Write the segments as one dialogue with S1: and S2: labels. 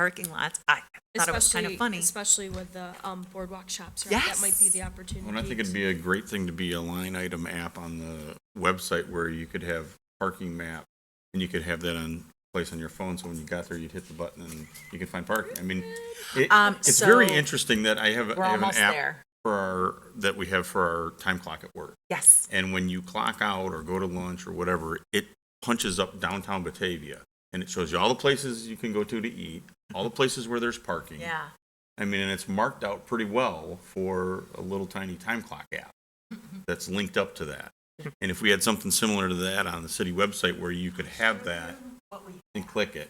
S1: parking lots, I thought it was kind of
S2: Especially-
S1: funny.
S2: Especially with the um, boardwalk shops, right? That might be
S1: Yes.
S2: the opportunity.
S3: Well, and I think it'd be a great thing to be a line item app on the website where you could have parking map and you could have that on place on your phone. So when you got there, you'd hit the button and you could find parking. I mean, it,
S1: Um,
S3: it's very
S1: so-
S3: interesting that I have, I
S4: We're
S3: have an
S4: almost
S3: app
S4: there.
S3: for our that we have for our time clock at work.
S1: Yes,
S3: And when you clock out or go to lunch or whatever, it punches up downtown Batavia and it shows you all the places you can go to to eat, all the places where there's parking.
S1: yeah.
S3: I mean, and it's marked out pretty well for a little tiny time clock app that's linked up to that. And if we had something similar to that on the city website where you could have that and click it.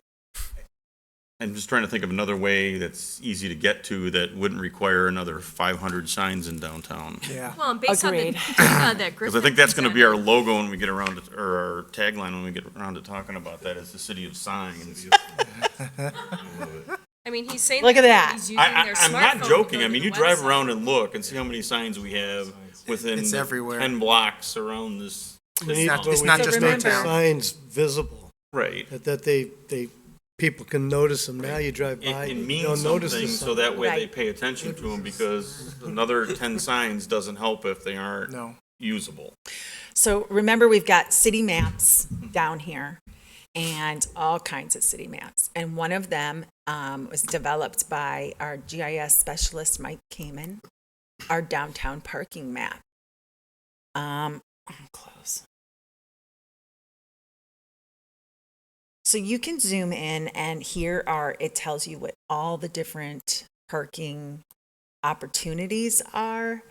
S3: I'm just trying to think of another way that's easy to get to that wouldn't require another 500 signs in downtown.
S5: Yeah.
S2: Well, and based on the,
S4: Agreed.
S2: uh, that
S3: Because I
S2: Griffin
S3: think that's going to be
S2: presented-
S3: our logo when we get around, to- or our tagline when we get around to talking about that is the city of signs.
S2: I mean, he's saying.
S1: Look at that.
S2: He's using
S3: I,
S2: their
S3: I, I'm not
S2: smartphone to
S3: joking.
S2: go
S3: I
S2: to
S3: mean,
S2: the
S3: you drive
S2: website.
S3: around and look and see how many signs we have within
S5: It's everywhere.
S3: ten blocks around this. this
S6: We need-
S5: not-
S3: town.
S6: but
S5: it's
S6: we
S5: not
S6: need
S5: just
S6: to make
S5: downtown.
S6: the Signs visible,
S3: right.
S6: that, that they, they, people can notice them. Now you drive
S3: It,
S6: by,
S3: it
S6: you
S3: means
S6: don't notice
S3: something,
S6: the
S3: so
S6: sign.
S3: that way they
S1: Right.
S3: pay attention to them because another ten signs doesn't help if they aren't
S5: No.
S3: usable.
S1: So remember, we've got city maps down here and all kinds of city maps. And one of them um, was developed by our GIS specialist, Mike Kamen, our downtown parking map. Um, I'm close. So you can zoom in and here are, it tells you what all the different parking opportunities are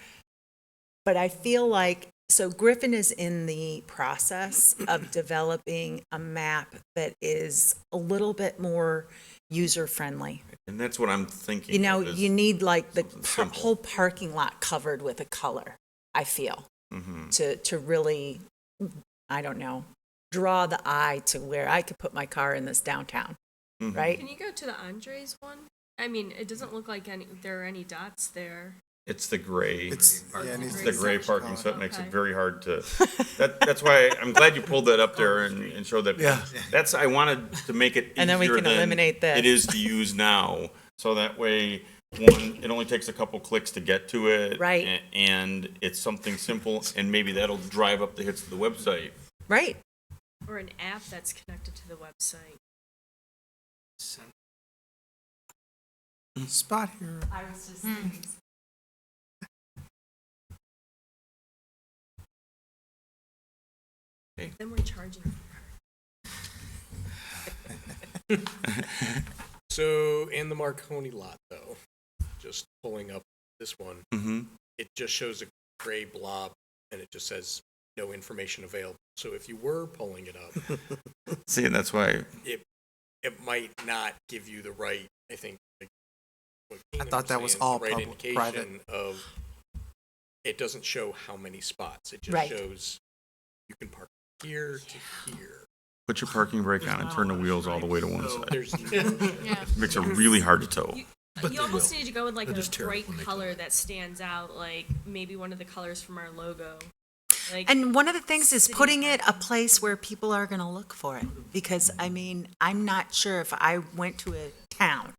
S1: but I feel like, so Griffin is in the process of developing a map that is a little bit more user-friendly.
S3: And that's what I'm thinking.
S1: You know,
S3: is-
S1: you need like the
S3: something
S1: par-
S3: simple.
S1: whole parking lot covered with a color, I feel,
S3: Mhm.
S1: to, to really, I don't know, draw the eye to where I could put my car in this downtown,
S3: Mhm.
S1: right?
S2: Can you go to the Andres one? I mean, it doesn't look like any, there are any dots there.
S3: It's the gray.
S5: It's, yeah, it
S3: It's
S5: needs
S3: the
S5: to
S3: gray
S5: be.
S3: parking, so it makes it
S2: Okay.
S3: very hard to, that, that's why, I'm glad you pulled that up there and, and showed that.
S5: Yeah.
S3: That's, I wanted to make it
S1: And then we
S3: easier
S1: can
S3: than
S1: eliminate this.
S3: It is to use now, so that way, one, it only takes a couple clicks to get to it.
S1: Right.
S3: a- And it's something simple, and maybe that'll drive up the hits to the website.
S1: Right?
S2: Or an app that's connected to the website.
S5: Spot here.
S2: Then we're charging.
S7: So in the Marconi lot, though, just pulling up this one,
S3: Mm-hmm.
S7: it just shows a gray blob and it just says no information available. So if you were pulling it up,
S3: See, and that's why,
S7: it might not give you the right, I think. like, what
S5: I
S7: Keenan
S5: thought that was
S7: saying, the
S5: all
S7: right
S5: public- private.
S7: indication Of, it doesn't show how many spots. It just
S1: Right.
S7: shows you can park here to here.
S3: put your parking brake on and turn the wheels all the way to one side.
S7: There's no
S2: Yeah.
S3: Makes it really hard to tow.
S2: You, you almost need to go with like a bright color that stands out, like maybe one of the colors from our logo. Like,
S1: And one of the things is
S2: City
S1: putting it a place where people are going to look for it. Because, I mean, I'm not sure if I went to a town,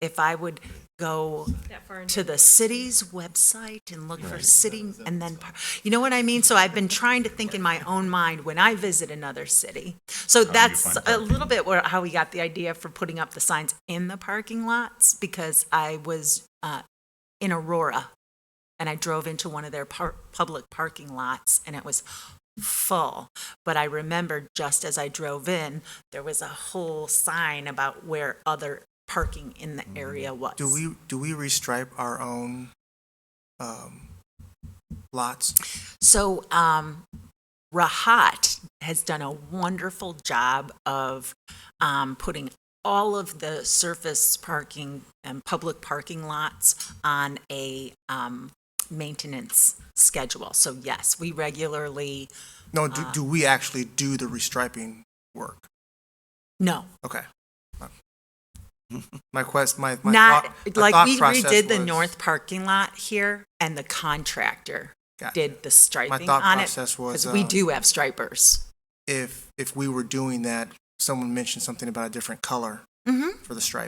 S1: if I would go
S2: that far into
S1: to the city's website and look for city and then, par- you know what I mean? So I've been trying to think in my own mind when I visit another city. So that's
S3: find
S1: a
S3: parking?
S1: little bit where, how we got the idea for putting up the signs in the parking lots because I was uh, in Aurora and I drove into one of their par- public parking lots and it was full. But I remembered just as I drove in, there was a whole sign about where other parking in the area was.
S5: Do we, do we restripe our own, um, lots?
S1: So, um, Rahat has done a wonderful job of um, putting all of the surface parking and public parking lots on a um, maintenance schedule. So, yes, we regularly,
S5: No, do,
S1: Uh.
S5: do we actually do the restriping work?
S1: no,
S5: Okay. My quest, my, my
S1: not
S5: thought, my
S1: like
S5: thought
S1: we
S5: process
S1: redid the
S5: was-
S1: north parking lot here and the contractor
S5: Gotcha.
S1: did the striping
S5: thought
S1: on it
S5: process was,
S1: we
S5: um,
S1: do have stripers.
S5: If, if we were doing that, someone mentioned something about a different color
S1: hmm
S5: for the striping.